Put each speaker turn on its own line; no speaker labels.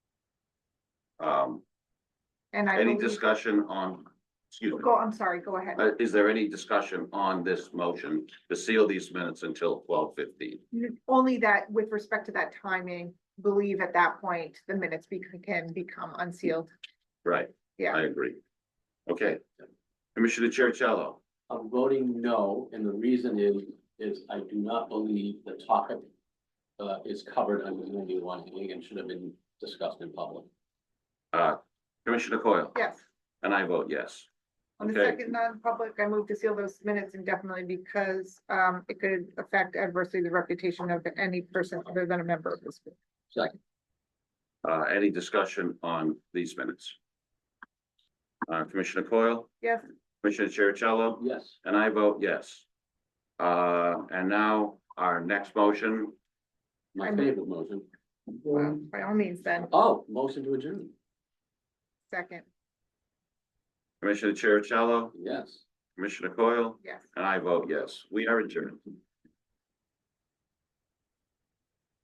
Um,
And I
any
believe,
discussion on, excuse me,
go, I'm sorry, go ahead.
uh, is there any discussion on this motion to seal these minutes until twelve fifteen?
Only that with respect to that timing, believe at that point, the minutes be- can become unsealed.
Right,
Yeah.
I agree. Okay, Commissioner Chercello,
I'm voting no, and the reason is, is I do not believe the topic uh, is covered under ninety-one A and should have been discussed in public.
uh, Commissioner Coyle,
Yes.
and I vote yes.
On the
Okay.
second non-public, I move to seal those minutes indefinitely because um it could affect adversely the reputation of any person other than a member of this. group.
Uh, any discussion on these minutes? Uh, Commissioner Coyle,
Yes,
Commissioner Chercello?
Yes,
And I vote yes. Uh, and now our next motion,
my
I'm-
favorite motion.
well, by all means then,
Oh, motion to adjourn,
second,
Commissioner Chercello,
yes.
Commissioner Coyle,
yes.
and I vote yes. We are adjourned.